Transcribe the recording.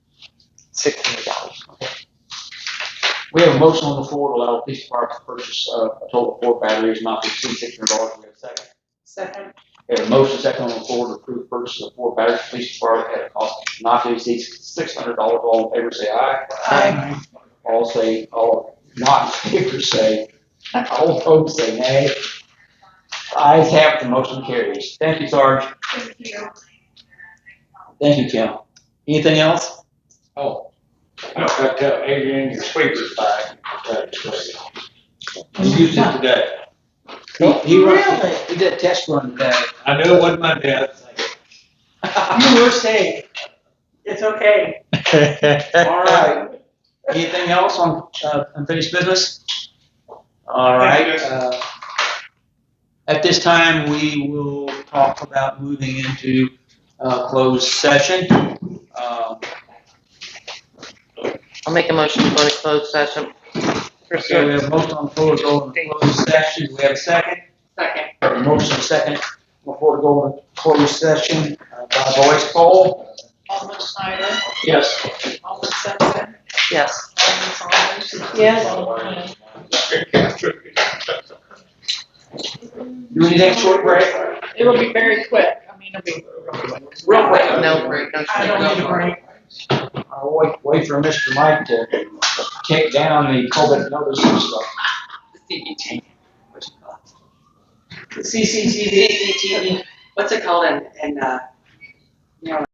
six hundred dollars. We have a motion on the floor to allow Peace Park to purchase, uh, a total of four batteries, not to exceed six hundred dollars. We have a second. Second. We have a motion second on the floor to approve purchase of four batteries, for Police Department at a cost not to exceed six hundred dollars. All in favor, say aye. Aye. All say, all not in favor, say, all opposed, say nay. Ayes have, it, the motion carries. Thank you, Sarge. Thank you. Thank you, Kim. Anything else? Oh, I forgot to tell Adrian, your sweeper's back. He used it today. He- he run- Oh, Really? He did a test run today. I knew it wasn't my dad's. You were safe. It's okay. All right. Anything else on uh, unfinished business? All right. uh, At this time, we will talk about moving into uh, closed session. Um, I'll make a motion to go to closed session. So we have a motion on the floor to go into closed session. Do we have a second? Second. Motion second before we go into closed session uh, by voice poll. Alderman Schneider, Yes. Alderman Simpson, Yes. Alderman Saunders. Yes. Do we need a short break? It'll be very quick. I mean, it'll be. Real quick. No break, no. I don't need a break. I'll wait, wait for Mr. Mike to take down the COVID notice and stuff. CCTV, what's it called in, in, uh,